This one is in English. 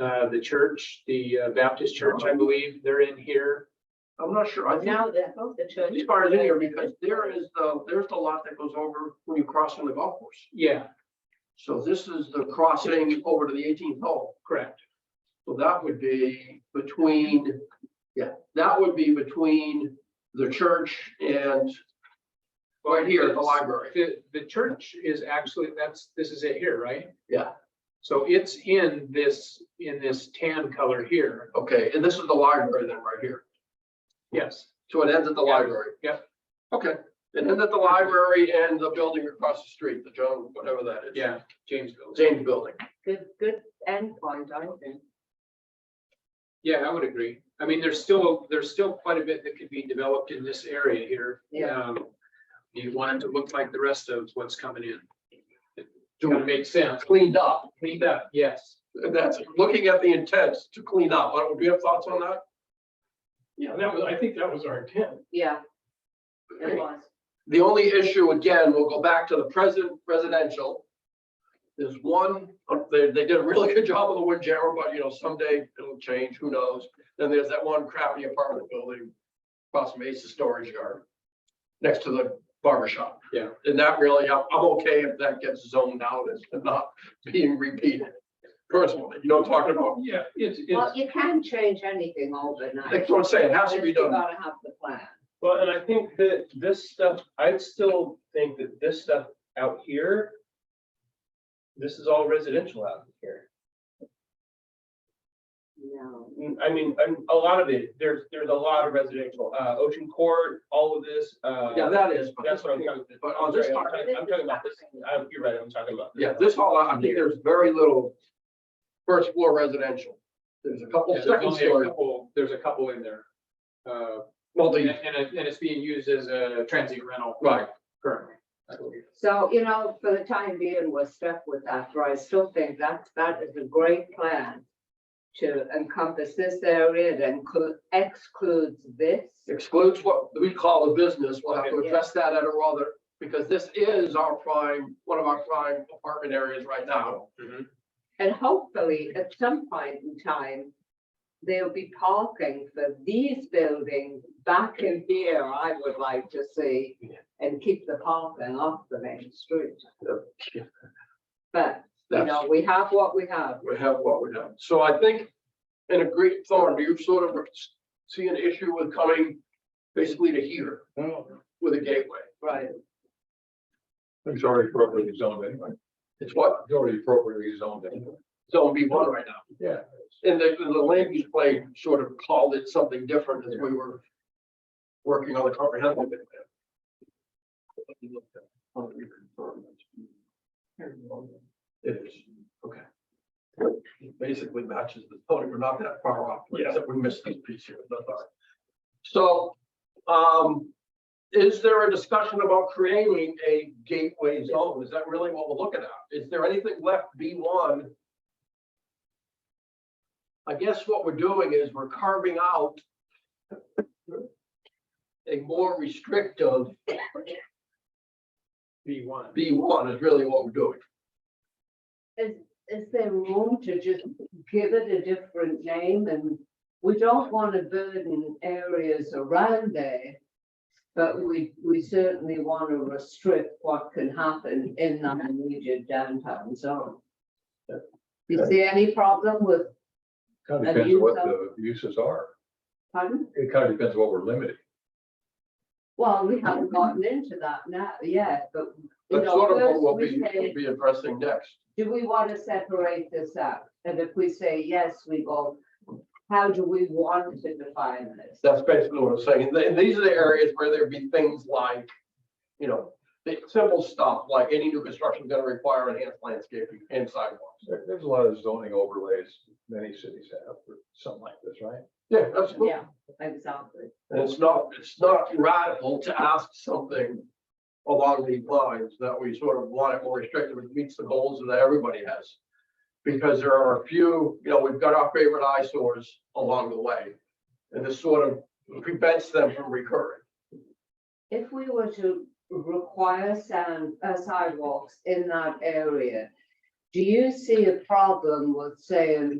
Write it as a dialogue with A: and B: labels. A: uh, the church, the uh, Baptist church,
B: Oh.
A: I believe, they're in here.
C: I'm not sure. I think
D: Now that, the church.
C: these bars in here because
A: uh,
C: there is the, there's the lot that goes over when you cross on the golf course.
A: Yeah,
C: So this is the crossing over to the eighteenth hole.
A: correct.
C: So that would be between, yeah, that would be between the church and right here at the library.
A: The, the church is actually, that's, this is it here, right?
C: Yeah.
A: So it's in this, in this tan color here.
C: Okay, and this is the library then right here.
A: Yes,
C: So it ends at the
A: Yeah,
C: library.
A: yeah.
C: Okay, it ends at the library and the building across the street, the John, whatever that is.
A: yeah, Jamesville.
C: James Building.
D: Good, good endpoint, I think.
A: Yeah, I would agree. I mean, there's still, there's still quite a bit that could be developed in this area here.
D: Yeah.
A: Um, You want it to look like the rest of what's coming in. It's
C: Do
A: gonna
C: it
A: make sense.
C: Cleaned up.
A: Cleaned up, yes.
C: And that's, looking at the intent to clean up. What would you have thoughts on that?
B: Yeah, that was, I think that was our intent.
D: Yeah, it was.
C: The only issue, again, we'll go back to the present residential. There's one, uh, they, they did a really good job of the wood jammer, but you know, someday it'll change, who knows? Then there's that one crappy apartment building across from Ace's Storage Yard, next to the barber shop.
A: Yeah.
C: And that really, I'm, I'm okay if that gets zoned out as not being repeated personally, you know what I'm talking about?
B: Yeah, it's,
D: Well,
B: it's,
D: you can change anything overnight.
C: That's what I'm saying, it has to
D: Just
C: be
D: you
C: done.
D: Gotta have the plan.
B: well, and I think that this stuff, I still think that this stuff out here, this is all residential out here.
D: No.
B: Mm, I mean, I'm- a lot of it, there's, there's a lot of residential, uh, Ocean Court, all of this, uh.
C: Yeah, that is. but-
B: That's what I'm talking,
C: But
B: I'm
C: on this
B: sorry, I'm
C: part-
B: talking, I'm talking about this, I'm, Uh, you're right, I'm talking about. this.
C: Yeah, this hall, I think there's very little first floor residential. There's a couple
A: Yeah, There's
C: second
A: only a
C: story
A: couple, there's a couple in there. Uh, And,
C: multi,
A: and it- and it's being used as a transient rental.
C: right,
A: Currently. I believe.
D: So, you know, for the time being, we're stuck with that, but I still think that, that is a great plan to encompass this area that inclu- excludes this.
C: excludes what we call the business. We'll have to
D: Okay.
C: address that at a rather, because this is our prime, one of our prime apartment areas right now.
D: And hopefully, at some point in time, there'll be parking for these buildings back in here, I would like to see, and keep the parking off the main street. But, you
C: That's,
D: know, we have what we have.
C: we have what we have. So I think, in a great thorn, do you sort of see an issue with coming basically to here with a gateway?
D: Right.
E: It's already appropriately zoned anyway.
C: It's what
E: It's already appropriately zoned anyway.
C: zone B one right now.
E: Yeah.
C: And the, the land use plan sort of called it something different as we were working on the comprehensive. Oh, plan. It is, okay. It Basically matches the zoning, we're not that far off,
B: Yeah.
C: except we missed this piece here, that's all right. So, um, is there a discussion about creating a gateway zone? Is that really what we're looking at? Is there anything left B one I guess what we're doing is we're carving out a more restrictive
A: B one.
C: B one is really what we're doing.
D: Is, is there room to just give it a different name and we don't want to burden areas around there. But we, we certainly want to restrict what can happen in that immediate downtown zone. You see any problem with,
E: Kind
D: And
E: of depends
D: you
E: what
D: zone-
E: the uses are.
D: pardon?
E: It kind of depends what we're limiting.
D: Well, we haven't gotten into that now yet, but. you
C: That's
D: know,
C: sort of
D: first
C: what we'll
D: we
C: be,
D: say,
C: we'll be addressing next.
D: Do we want to separate this out? And if we say yes, we go, how do we want to define this?
C: That's basically what I'm saying. And these are the areas where there'd be things like, you know, the simple stuff, like any new construction is gonna require enhanced landscaping and sidewalks.
E: There- There's a lot of zoning overlays many cities have for something like this, right?
C: Yeah, absolutely.
D: Yeah, exactly.
C: And it's not, it's not radical to ask something along these lines that we sort of want it more restrictive, which meets the goals that everybody has. Because there are a few, you know, we've got our favorite eyesores along the way. And this sort of prevents them from recurring.
D: If we were to require sand, uh, sidewalks in that area, do you see a problem with saying